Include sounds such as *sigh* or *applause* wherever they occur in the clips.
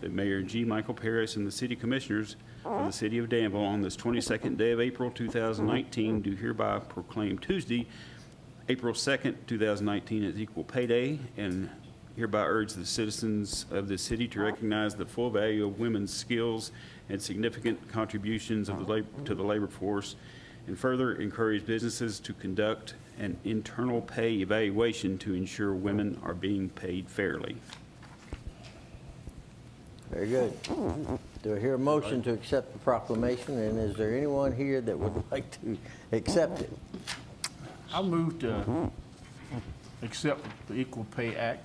that Mayor G. Michael Paris and the city commissioners of the city of Danville on this 22nd day of April 2019 do hereby proclaim Tuesday, April 2nd, 2019 as Equal Pay Day, and hereby urge the citizens of the city to recognize the full value of women's skills and significant contributions of the lab- to the labor force, and further encourage businesses to conduct an internal pay evaluation to ensure women are being paid fairly. Very good. Do I hear a motion to accept the proclamation, and is there anyone here that would *laughs* like to accept it? I move to accept the Equal Pay Act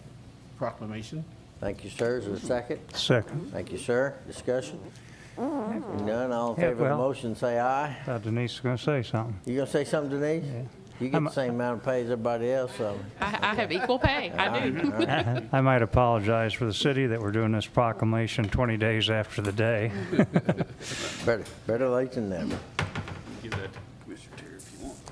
proclamation. Thank you, sir. Is there a second? Second. Thank you, sir. Discussion? Hearing None, all in Yeah, favor of the well- motion, say aye. Thought Denise was going to say something. You gonna say something, Denise? You get I'm- the same amount of pay as everybody else, so. I, I have equal pay. I do. I might apologize for the city that we're doing this proclamation 20 days after the day. Better, better late than never. Give that to Commissioner Terry if you want.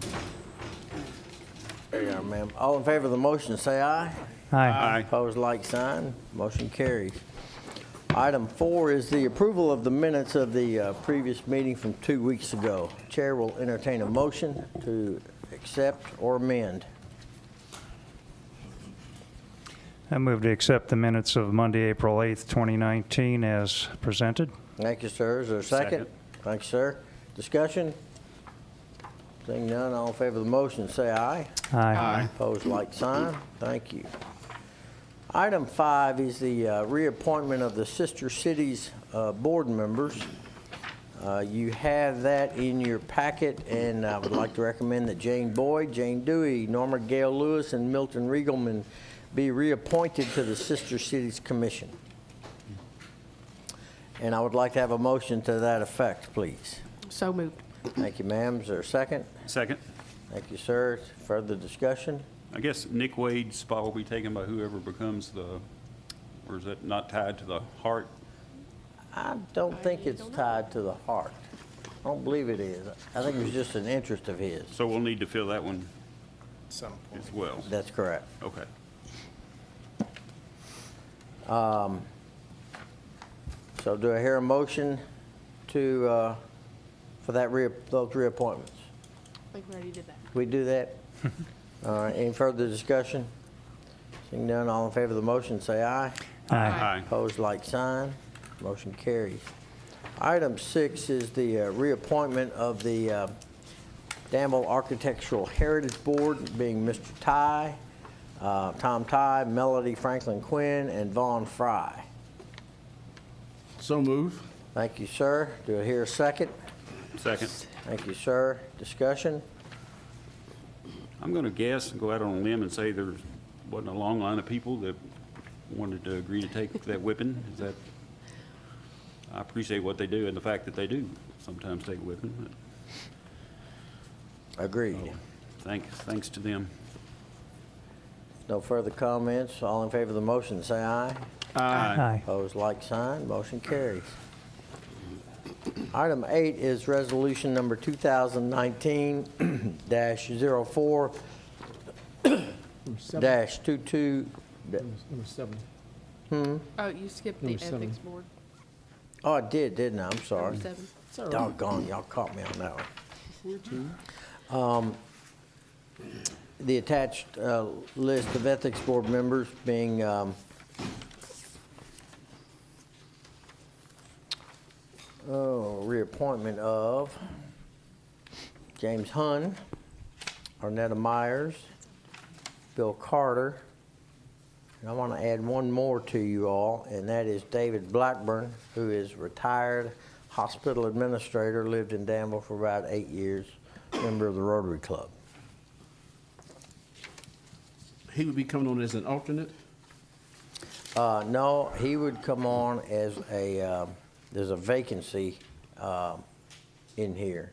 There you are, ma'am. All in favor of the motion, say aye. Aye. Opposed, like sign. Motion carries. Item four is the approval of the minutes of the uh, previous meeting from two weeks ago. Chair will entertain a motion to accept or amend. I move to accept the minutes of Monday, April 8th, 2019 as presented. Thank you, sir. Is there a second? Second. Thank you, sir. Discussion? Seeing none, all in favor of the motion, say aye. Aye. Opposed, like sign. Thank you. Item five is the uh, reappointment of the Sister Cities uh, Board members. Uh, You have that in your packet, and I would like to recommend that Jane Boyd, Jane Dewey, Norma Gale Lewis, and Milton Riegelman be reappointed to the Sister Cities Commission. And I would like to have a motion to that effect, please. So moved. Thank you, ma'am. Is there a second? Second, Thank you, sir. Further discussion? I guess Nick Wade's spot will be taken by whoever becomes the, or is that not tied to the heart? I don't think it's tied to the heart. I don't believe it is. I think it was just an interest of his. So we'll need to fill that one Some as well. That's correct. Okay. So do I hear a motion to, uh, for that rea, those reappointments? I think we already did that. We do that? All right, any further discussion? Seeing none, all in favor of the motion, say aye. Aye. Opposed, like sign. Motion carries. Item six is the uh, reappointment of the uh, Danville Architectural Heritage Board, being Mr. Ty, uh, Tom Ty, Melody Franklin Quinn, and Vaughn Fry. So move. Thank you, sir. Do I hear a second? Second, Thank you, sir. Discussion? I'm going to guess and go out on a limb and say there wasn't a long line of people that wanted to agree to take that whipping. Is that, I appreciate what they do and the fact that they do sometimes take whipping, but Agreed. thanks, thanks to them. No further comments. All in favor of the motion, say aye. Aye. Opposed, like sign, motion carries. Item eight is resolution number *clears throat* 2019-04-22, Number seven. Number seven. Oh, you skipped the Number seven. ethics board. oh, I did, didn't I? I'm sorry. Number seven. Sorry. Doggone, y'all caught me on that one. Um, The attached uh, list of ethics board members being um, oh, reappointment of James Hun, Arnetta Myers, Bill Carter, and I want to add one more to you all, and that is David Blackburn, who is retired hospital administrator, lived in Danville for about eight years, member of the Rotary Club. He would be coming on as an alternate. Uh, no, he would come on as a, um, there's a vacancy, um, in here.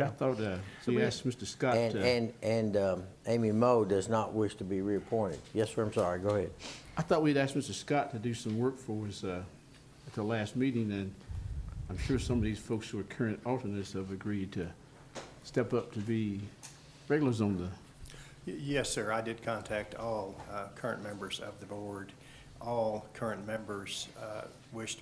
I thought, uh, you asked Mr. Scott, And, uh, and, and, um, Amy Moe does not wish to be reappointed. Yes, sir, I'm sorry, go ahead. I thought we'd asked Mr. Scott to do some work for us, uh, at the last meeting, and I'm sure some of these folks who are current alternates have agreed to step up to be regulars on the Y- Yes, sir. I did contact all uh, current members of the board. All current members uh, wish to